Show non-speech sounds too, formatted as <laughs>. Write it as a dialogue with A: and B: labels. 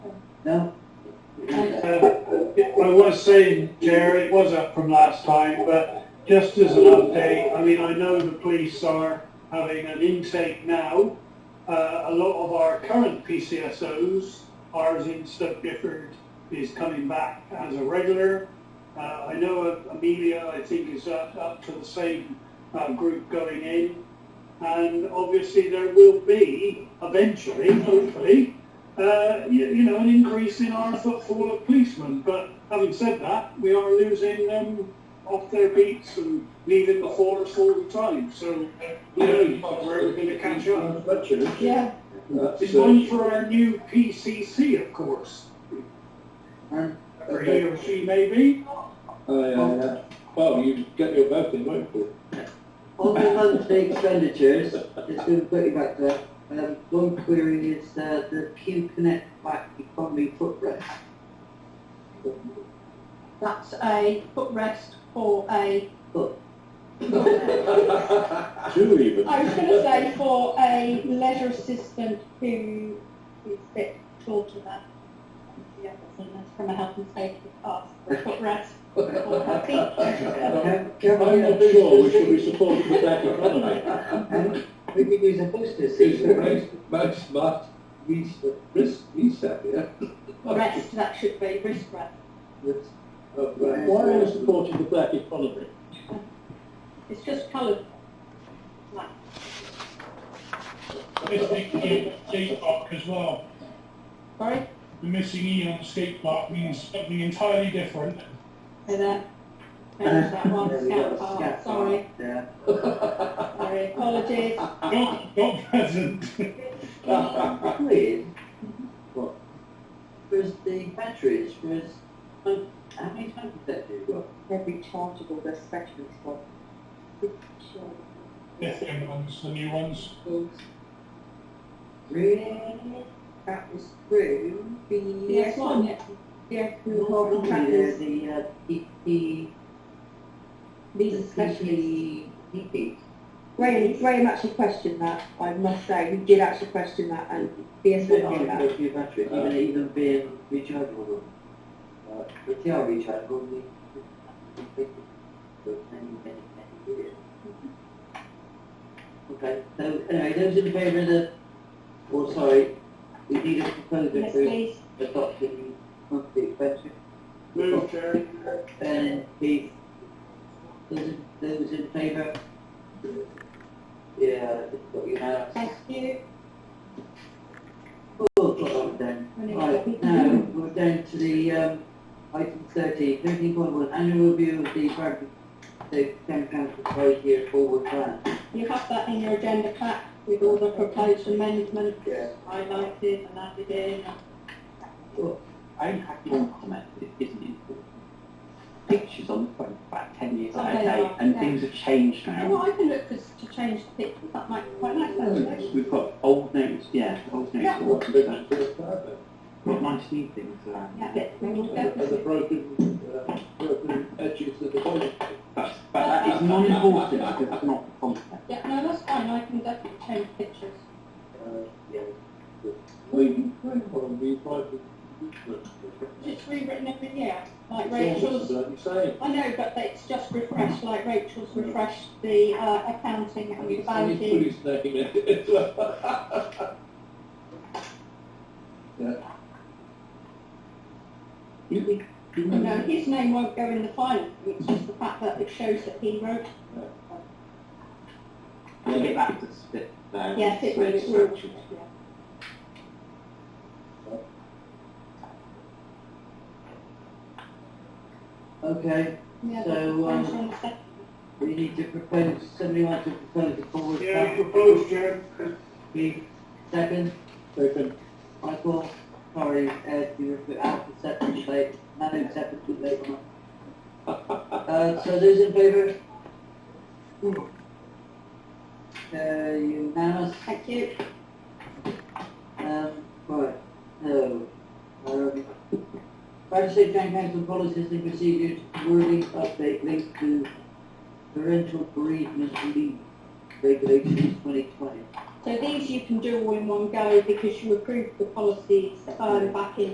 A: No?
B: Uh, I was saying, Jerry, it was up from last time, but just as an update, I mean, I know the police are having an intake now. Uh, a lot of our current PCSOs, ours in Stoke Gifford, is coming back as a regular. Uh, I know Amelia, I think, is up, up to the same uh, group going in. And obviously there will be, eventually, hopefully, uh, you, you know, an increase in our footfall of policemen. But having said that, we are losing them off their beats and leaving the forest all the time. So who knows where we're going to catch up.
A: Yeah.
B: It's one for our new PCC, of course,
A: Aren't-
B: or he or she
C: <laughs>
B: may be.
D: Well, you get your vote in, won't you?
A: On the monthly expenditures, just going to put you back to that, um, one query is, uh, the Pew Connect Black Economy footrest.
E: That's a footrest for a,
D: Two even.
E: I was going to say for a leisure assistant who is a bit short of that. Yeah, that's in there, from a health and safety class, for a footrest for her feet.
A: Can- can we
D: I'm
A: get a
D: not sure we
A: booster
D: should be
A: seat?
D: supporting the black economy.
A: And We could use a booster
D: It's
A: seat.
D: the most, most smart, least, risk, least out there.
E: Rest, that should be wrist rest.
D: Why are we supporting the black economy?
E: It's just coloured. Like,
C: Missing E on skate park as well.
E: sorry,
C: The missing E on skate park means something entirely different.
E: and then, there's that one,
A: There we go,
E: scout park,
A: scat
E: sorry,
A: park, Yeah.
E: sorry,
A: <laughs>
E: apologies.
C: Not, not present. <laughs>
A: Wait. What? Where's the batteries, where's, um, how many times did that do? Well,
F: They're rechargeable, they're specially for
C: Different ones, the new ones.
A: Really? That was through.
E: Yes, one, yeah. Yeah, who hold the
A: Yeah,
E: trackers,
A: the, uh, P, P,
F: These are specially,
A: P, P, P.
F: Graham, Graham actually questioned that, I must say, he did actually question that, and BS went
A: They're not
F: on that.
A: supposed to be a battery, even, even being rechargeable. Uh, But they are rechargeable, we, we- we think it for many, many, many years. Okay, so anyway, those in favour of the, oh, sorry, we need a proposal
E: yes,
A: for
E: please,
A: adopting monthly expenditure.
B: Move, Jerry.
A: Ben and Keith, Uh, those, in- those in favour? Yeah, it's got unanimous.
E: thank you.
A: Oh, God, then. Right, now,
E: Now,
A: we're down to the, um, item thirty, thirteen point one, annual review of the Barbary, the town council five year forward plan.
E: You have that in your agenda pack with all the proposed amendments highlighted and added in.
G: I only have one comment that isn't important. Pictures on the phone for about ten years, I
E: Okay,
G: say,
E: yeah.
G: and things have changed
E: And
G: now.
E: what I can look for is to change the pictures, that might be quite nice actually.
G: We've got old notes, yeah, old notes.
E: Yeah.
G: all up to date. Got nice new things around.
E: Yeah, we will
D: And the
E: definitely.
D: broken, uh, broken edges of the body.
G: But, but that is non-important because it's not the content.
E: Yeah, no, that's fine, I can definitely change pictures.
D: We, we might be.
E: It's rewritten every year, like Rachel's,
D: Like you say.
E: I know, but it's just refreshed, like Rachel's refreshed the uh, accounting and the
D: He's put
E: banking.
D: his name in it as well. Yeah. You think- you
E: You know,
D: know,
E: his name won't go in the final, it's just the fact that it shows that he wrote
G: We'll get back to split there.
E: Yes, it will, it will, yeah.
A: Okay,
E: Yeah,
A: so,
E: that's
A: um,
E: on the second.
A: we need to propose, somebody wants to propose a forward
B: Yeah,
A: plan?
B: proposed, Jerry.
A: Keith, second,
D: Second,
A: Michael, sorry, Ed, you were put out for second, late, not accepted, too late on. Uh, so those in favour? Uh, unanimous?
E: Thank you.
A: Um, right, so, um, fire safety and council policies and procedures, wording update linked to parental bereavement leave regulations twenty twenty.
E: So these you can do all in one go because you approved the policies um, back in